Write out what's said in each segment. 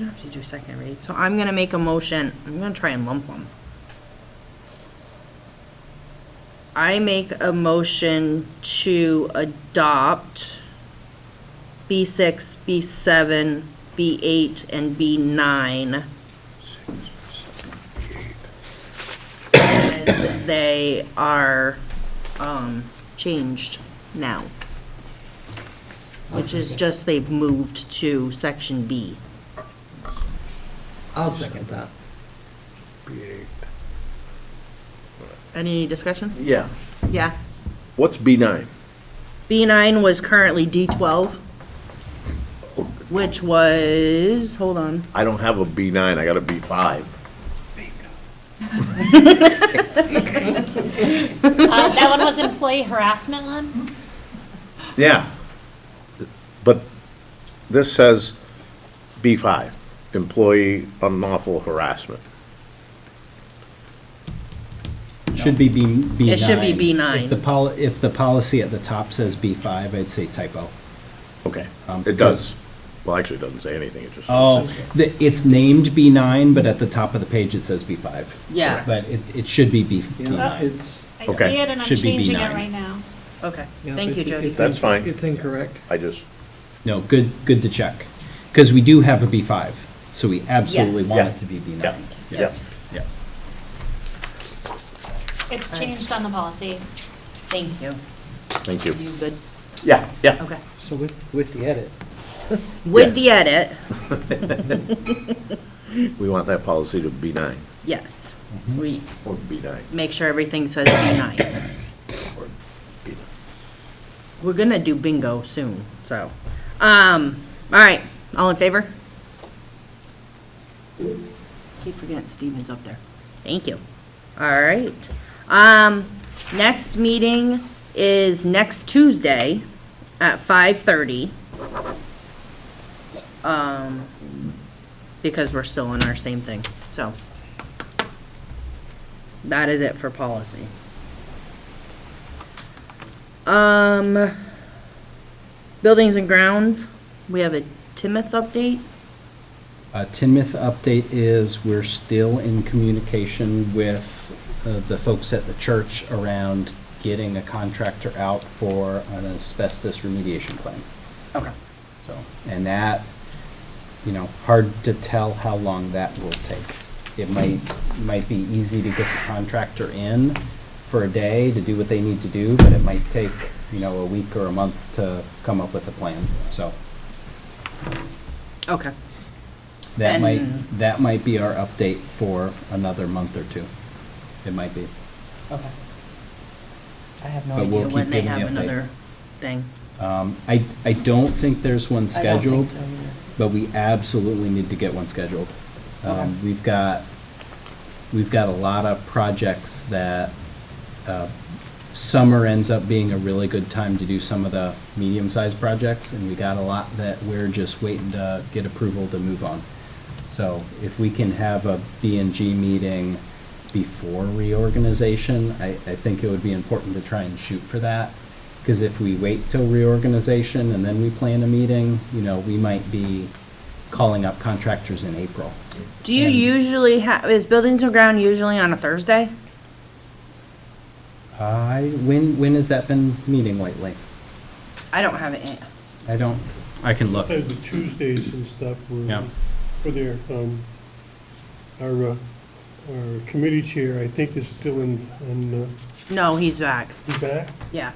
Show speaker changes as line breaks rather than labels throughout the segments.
You don't have to do a second read. So I'm going to make a motion. I'm going to try and lump them. I make a motion to adopt B6, B7, B8, and B9 as they are um, changed now. Which is just they've moved to section B.
I'll second that.
Any discussion?
Yeah.
Yeah.
What's B9?
B9 was currently D12, which was, hold on,
I don't have a B9, I got a B5.
Uh, That one was employee harassment one?
Yeah. But this says B5, employee unlawful harassment.
Should be B, B9.
It should be B9.
If the poli, if the policy at the top says B5, I'd say typo.
Okay.
Um, Oh.
It does, well, actually, it doesn't say anything, it just.
The- It's named B9, but at the top of the page it says B5.
Yeah.
But it, it should be B- B9.
It's,
I see
Okay.
it and I'm
Should be
changing it
B9.
right now.
okay.
yeah,
Thank you,
it's-
Jody.
it's
That's
inc-
fine.
It's incorrect.
I just,
No, good, good to check. Because we do have a B5, so we absolutely
Yes.
want
Yeah.
it to be B9.
yeah, yeah.
Yeah.
It's changed on the policy.
Thank you.
Thank you.
You good?
Yeah, yeah.
Okay.
So with, with the edit,
With the edit,
We want that policy to B9,
yes.
Mm-hmm.
We
or B9,
make sure everything says B9.
or B9.
We're going to do bingo soon, so. Um, all right, all in favor? Keep forgetting Steven's up there. Thank you. All right. Um, next meeting is next Tuesday at five thirty. Um, because we're still in our same thing, so. That is it for policy. Um, buildings and grounds, we have a Timoth update.
Uh, Tinmouth update is we're still in communication with uh, the folks at the church around getting a contractor out for an asbestos remediation plan.
Okay.
So, and that, you know, hard to tell how long that will take. It might, might be easy to get the contractor in for a day to do what they need to do, but it might take, you know, a week or a month to come up with a plan, so.
Okay.
Uh, That might,
And-
that might be our update for another month or two. It might be.
Okay. I have no
But we'll
idea when
keep
they
giving
have
the update.
another thing.
Um, I, I don't think there's one
I don't think
scheduled,
so either.
but we absolutely need to get one scheduled.
Okay.
Um, we've got, we've got a lot of projects that, uh, summer ends up being a really good time to do some of the medium-sized projects, and we got a lot that we're just waiting to get approval to move on. So if we can have a B and G meeting before reorganization, I, I think it would be important to try and shoot for that. Because if we wait till reorganization and then we plan a meeting, you know, we might be calling up contractors in April.
Do you
And-
usually have, is buildings and ground usually on a Thursday?
I, when, when has that been meeting lately?
I don't have it. in-
I don't, I can look.
Uh, The Tuesdays and stuff
Yeah.
were, were there. Um, Our, uh, our committee chair, I think, is still in, in, uh,
No, he's back.
he's back.
Yeah.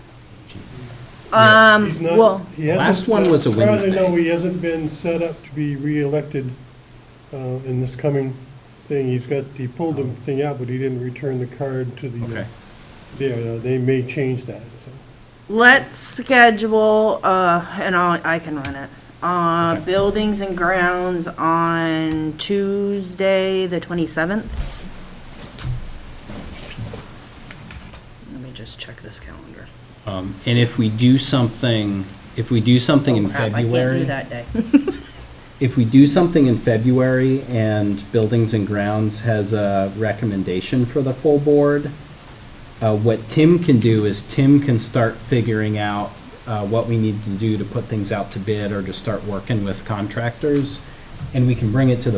Um,
He's not-
well,
he hasn't-
Last one was a
Apparently, no,
Wednesday.
he hasn't been set up to be reelected uh, in this coming thing. He's got, he pulled the thing out, but he didn't return the card to the,
Oh.
uh,
Okay.
there, uh, they may change that, so.
let's schedule, uh, and I'll, I can run it. Uh,
Okay.
buildings and grounds on Tuesday, the twenty-seventh. Let me just check this calendar.
Um, and if we do something, if we do something in
Oh, crap,
February.
I can't do that day.
if we do something in February and Buildings and Grounds has a recommendation for the full board, uh, what Tim can do is Tim can start figuring out uh, what we need to do to put things out to bid or to start working with contractors. and we can bring it to the